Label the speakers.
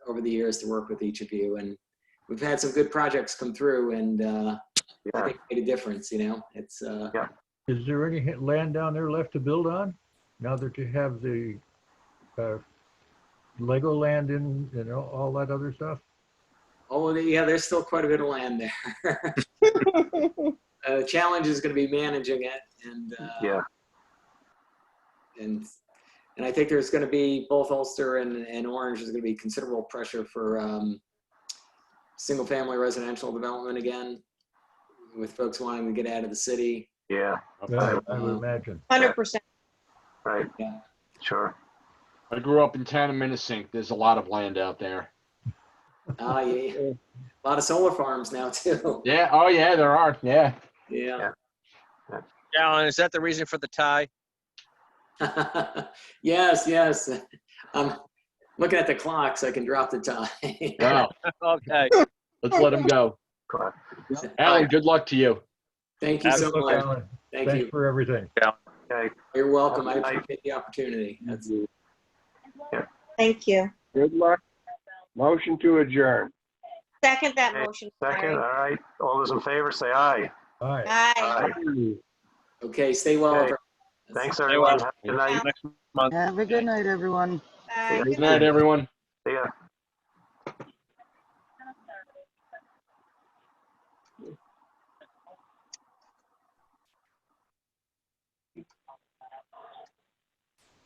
Speaker 1: over the years to work with each of you, and we've had some good projects come through, and uh, I
Speaker 2: Yeah.
Speaker 1: think it made a difference. You know, it's uh,
Speaker 3: Is there any h- land down there left to build on now that you have the uh, Lego land in and all- all that other stuff?
Speaker 1: oh yeah, there's still quite a bit of land there. uh, the challenge is going to be managing it, and uh,
Speaker 2: Yeah.
Speaker 1: and and I think there's going to be both Ulster and, and Orange is going to be considerable pressure for um, single family residential development again, with folks wanting to get out of the city.
Speaker 2: Yeah,
Speaker 3: Yeah, I would imagine.
Speaker 4: Hundred percent.
Speaker 2: right.
Speaker 1: Yeah.
Speaker 2: Sure.
Speaker 5: I grew up in town of Minnesink. There's a lot of land out there.
Speaker 1: Ah, yeah, yeah. a lot of solar farms now too.
Speaker 5: Yeah. Oh, yeah, there are. Yeah.
Speaker 1: Yeah.
Speaker 6: Alan, is that the reason for the tie?
Speaker 1: yes, yes. I'm looking at the clock so I can drop the time.
Speaker 5: Wow.
Speaker 6: Okay.
Speaker 5: Let's let him go.
Speaker 2: Cool.
Speaker 5: Alan, good luck to you.
Speaker 1: Thank you so
Speaker 3: Look,
Speaker 1: much.
Speaker 3: Alan,
Speaker 1: Thank
Speaker 3: Thanks
Speaker 1: you.
Speaker 3: for everything.
Speaker 2: Okay.
Speaker 1: You're welcome. I
Speaker 2: Have a nice-
Speaker 1: appreciate the opportunity. That's
Speaker 4: Thank you.
Speaker 7: Good luck. Motion to adjourn.
Speaker 4: Second that
Speaker 2: Okay,
Speaker 4: motion.
Speaker 2: Second, all
Speaker 4: Larry.
Speaker 2: right. All those in favor, say aye.
Speaker 3: All right.
Speaker 4: Aye.
Speaker 1: okay. Stay well.
Speaker 2: Okay.
Speaker 1: everyone.
Speaker 2: Thanks, everyone. Have a good night.
Speaker 4: Bye.
Speaker 8: Have a good night, everyone.
Speaker 4: Bye.
Speaker 5: Good night, everyone.
Speaker 2: See ya.